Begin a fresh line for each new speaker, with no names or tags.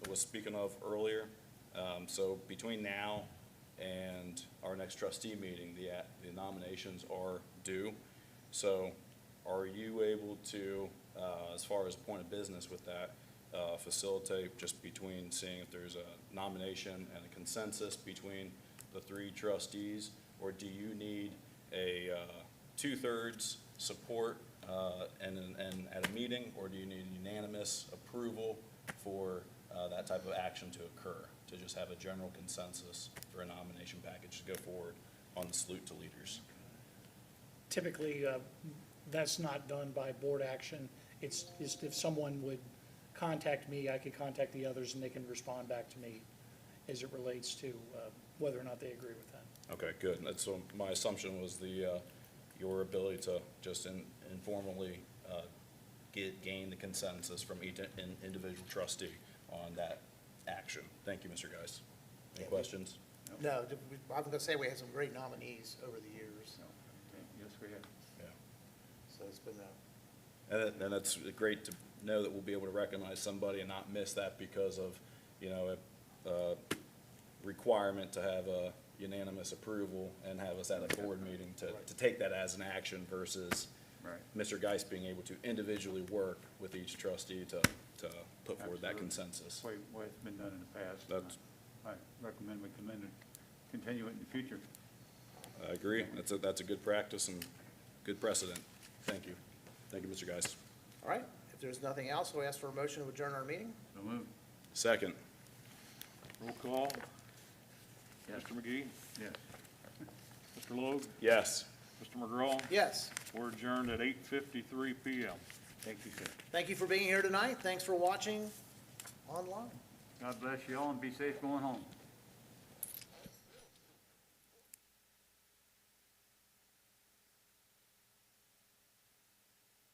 was speaking of earlier. Um, So between now and our next trustee meeting, the a- the nominations are due. So are you able to, uh, as far as point of business with that, uh, facilitate just between seeing if there's a nomination and a consensus between the three trustees? Or do you need a uh, two-thirds support uh, and, and at a meeting? Or do you need unanimous approval for uh, that type of action to occur? To just have a general consensus for a nomination package to go forward on the salute to leaders?
Typically, uh, that's not done by board action. It's, it's if someone would contact me, I could contact the others and they can respond back to me as it relates to uh, whether or not they agree with that.
Okay, good. And That's, so my assumption was the, uh, your ability to just in- informally uh, get, gain the consensus from each in- individual trustee on that action. Thank you, Mr. Geis. Any questions?
No, th- we- I was gonna say we had some great nominees over the years,
Yes, we have.
Yeah.
so it's been uh, a,
And that- and that's great to know that we'll be able to recognize somebody and not miss that because of, you know, a uh, requirement to have a unanimous approval and have us at a board meeting to, to take that as an action versus
Right.
Mr. Geis being able to individually work with each trustee to, to put forward that
Absolutely.
consensus.
That's way, way it's been done in the past. and
That's-
I I recommend we commend it, continue it in the future.
I agree. That's a, that's a good practice and good precedent. Thank you. Thank you, Mr. Geis.
all right. If there's nothing else, we'll ask for a motion to adjourn our meeting.
So move.
Second.
Roll call. Mr. McGee,
Yes.
Mr. Logue,
Yes.
Mr. McGraw.
Yes,
We're adjourned at eight fifty-three PM.
Thank you, sir.
thank you for being here tonight. Thanks for watching online.
God bless you all and be safe going home.